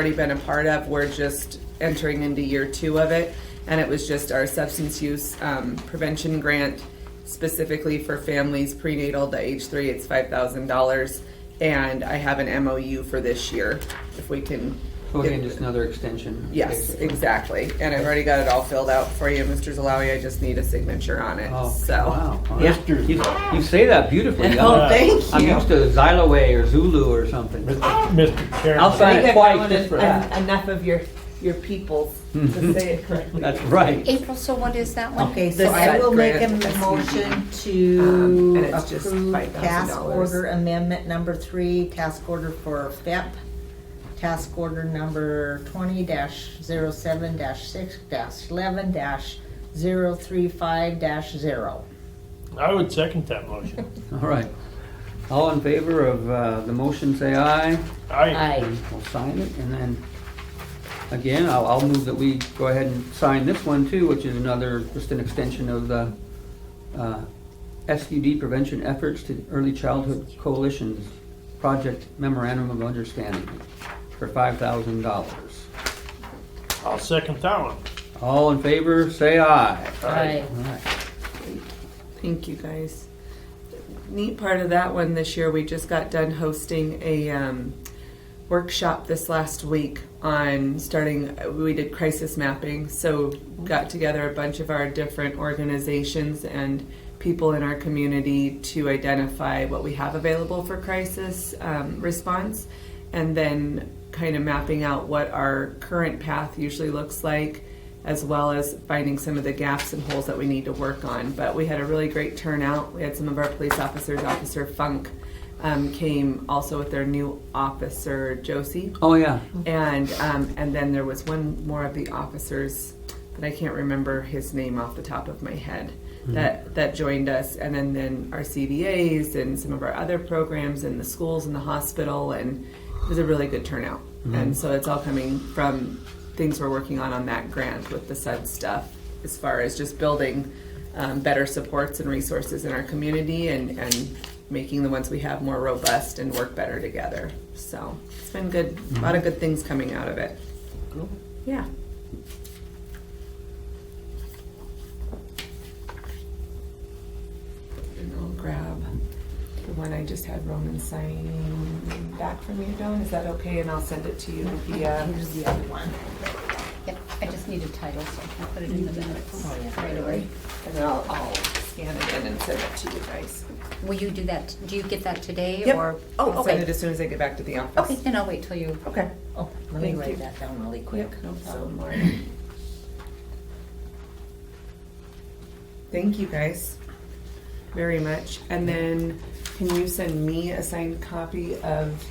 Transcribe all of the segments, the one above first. already been a part of. We're just entering into year two of it. And it was just our substance use um, prevention grant specifically for families prenatal to age three. It's $5,000. And I have an MOU for this year if we can. So again, get- just another extension. Yes, basically. exactly. And I've already got it all filled out for you, Mr. Zalawi. I just need a signature on it. Oh, So. wow. All right. Yeah. Mr. You, you say that beautifully. Oh, I'm- thank you. I'm used to Xyloway or Zulu or something. Mr. I'll Chairman, sign You've it twice grown just for en- that. Enough of your, your peoples to say it correctly. That's right. April, so what is that one? Okay, The so I will make a grant, E motion Um, and to it's just approve $5,000. task order amendment number three, task order for FEP, task order number twenty dash zero seven dash six dash eleven dash zero three five dash zero. I would second that motion. All right. All in favor of uh, the motion, say aye. I, Aye. We'll sign it and then, again, I'll, I'll move that we go ahead and sign this one too, which is another, just an extension of the uh, SUD prevention efforts to early childhood coalitions project memorandum of understanding for five thousand dollars. I'll second that one. All in favor, say aye. Aye. All right. Thank you, guys. Neat part of that one this year, we just got done hosting a um, workshop this last week on starting, we did crisis mapping. So, got together a bunch of our different organizations and people in our community to identify what we have available for crisis um, response and then kind of mapping out what our current path usually looks like as well as finding some of the gaps and holes that we need to work on. But we had a really great turnout. We had some of our police officers, Officer Funk um, came also with their new officer, Josie. Oh, yeah. And, um, and then there was one more of the officers, but I can't remember his name off the top of my head, that, that joined us. And then, then our CVAs and some of our other programs and the schools and the hospital. And it was a really good turnout. And so it's all coming from things we're working on on that grant with the SUD stuff, as far as just building um, better supports and resources in our community and, and making the ones we have more robust and work better together. So it's been good, a lot of good things coming out of it. Yeah. And I'll grab the one I just had Roman sign back from you, Dawn. Is that okay? And I'll send it to you via. Here's the other one. Yep, I just need a title, so I can put it in the minutes Oh, right away. And then I'll, I'll scan it in and send it to you guys. Will you do that, do you get that today or? Yep. I'll Oh, send send it it as soon as I get back to the Okay, office. then I'll wait till you, Okay. Oh, let Thank me you. write that down really quick. Quick. No, so Um, more. Thank you guys very much. And then can you send me a signed copy of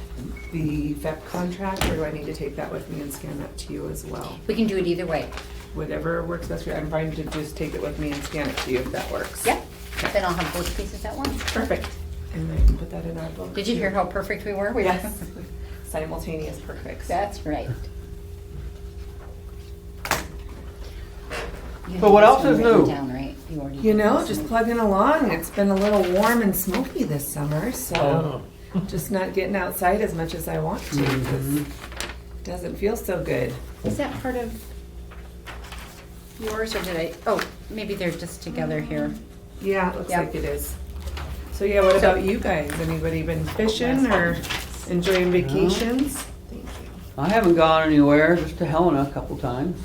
the VEP contract or do I need to take that with me and scan that to you as well? we can do it either way. Whatever works best for you. I'm fine to just take it with me and scan it to you if that works. Yep, then I'll have both pieces at once. Perfect. And I can put that in our book. Did you hear how perfect we were? We- Yes. Simultaneous perfect. That's right. You But what have else this is one written new? Down, right? You already You did know, this just one. plugging along. It's been a little warm and smoky this summer, so Oh, just not getting outside as much as I want to. 'cause it Doesn't feel so good. Is that part of yours or did I, oh, maybe they're just together here. Yeah, it looks Yep. like it is. So yeah, what about you guys? Anybody been fishing or enjoying vacations? Thank you. I haven't gone anywhere, just to Helena a couple times.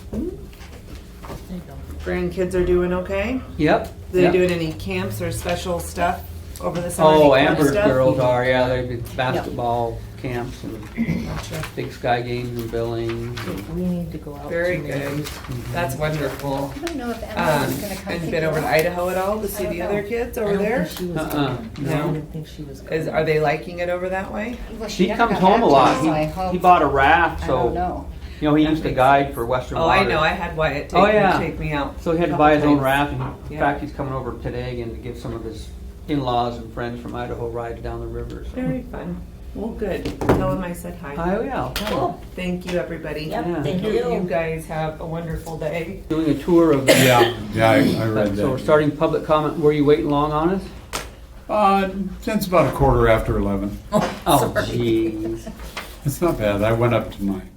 Grandkids are doing okay? Yep. They yep. doing any camps or special stuff over the summer? Oh, Any fun Amber's stuff? girls are, yeah, they do basketball camps and Gotcha. big sky games and billing. We need to go out. Very to maybe- good. That's wonderful. I don't know if Um, Emily's gonna come and pick been you over to up. Idaho at all to see I don't the other know. kids I over don't there? think she was Uh-uh, coming. no. I didn't think she was Is, coming. are they liking it over that way? Well, She never comes got home a back to lot. us, He- so I hope- He bought a raft, I so, don't know. you know, he used to guide for Western Oh, Water. I know. I had Wyatt take, Oh, yeah. take me out. So he had to a buy his couple own times. raft, and in Yeah. fact, he's coming over today again to give some of his in-laws and friends from Idaho rides down the river, so. Very fun. Well, good. Tell him I said hi. Oh, yeah. Cool. Thank you, everybody. Yeah. Yep, thank You, you you. guys have a wonderful day. Doing a tour of, Yeah, yeah, I, I read so we're that. starting public comment, were you waiting long on us? Uh, since about a quarter after eleven. Oh, jeez. It's not bad. I went up to my